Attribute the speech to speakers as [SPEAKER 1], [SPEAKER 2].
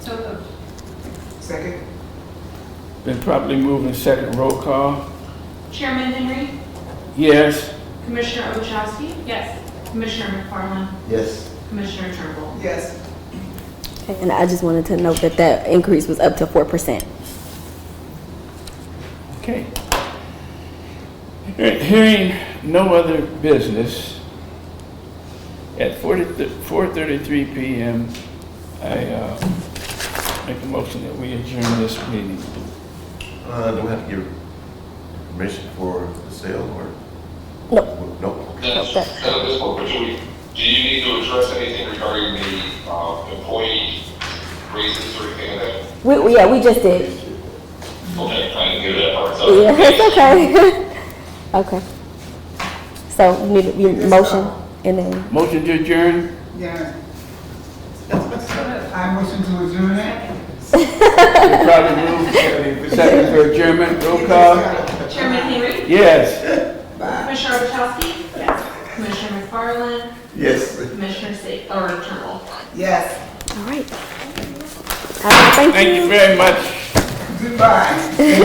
[SPEAKER 1] So moved.
[SPEAKER 2] uh,
[SPEAKER 3] Second?
[SPEAKER 4] Been properly moved and second roll call.
[SPEAKER 2] Chairman Henry,
[SPEAKER 4] Yes,
[SPEAKER 2] Commissioner Ochowski,
[SPEAKER 1] Yes.
[SPEAKER 2] Commissioner McFarland,
[SPEAKER 5] Yes,
[SPEAKER 2] Commissioner Turnbull.
[SPEAKER 3] Yes.
[SPEAKER 6] And I just wanted to note that that increase was up to four percent.
[SPEAKER 4] okay. Hear- Hearing no other business, at 40 4:33 PM, I uh, make a motion that we adjourn this meeting.
[SPEAKER 5] uh, do we have to give permission for the sale or?
[SPEAKER 6] No.
[SPEAKER 5] Nope,
[SPEAKER 7] Yes,
[SPEAKER 6] Okay.
[SPEAKER 7] so this one, but do we, do you need to address anything regarding the, uh, employee raises or anything like that?
[SPEAKER 6] We, we- yeah, we just did.
[SPEAKER 7] Okay, I didn't hear that part, so.
[SPEAKER 6] Yeah, it's okay. Okay. So you need your motion and then,
[SPEAKER 4] Motion to adjourn?
[SPEAKER 3] Yes. I motion to adjourn it.
[SPEAKER 4] Been properly moved and second for adjournment, roll call.
[SPEAKER 2] Chairman Henry,
[SPEAKER 4] Yes,
[SPEAKER 2] Commissioner Ochowski, yes. Commissioner McFarland,
[SPEAKER 5] yes.
[SPEAKER 2] Commissioner Sa, or Turnbull.
[SPEAKER 3] Yes.
[SPEAKER 6] all right. All right,
[SPEAKER 4] thank you very much.
[SPEAKER 3] Goodbye.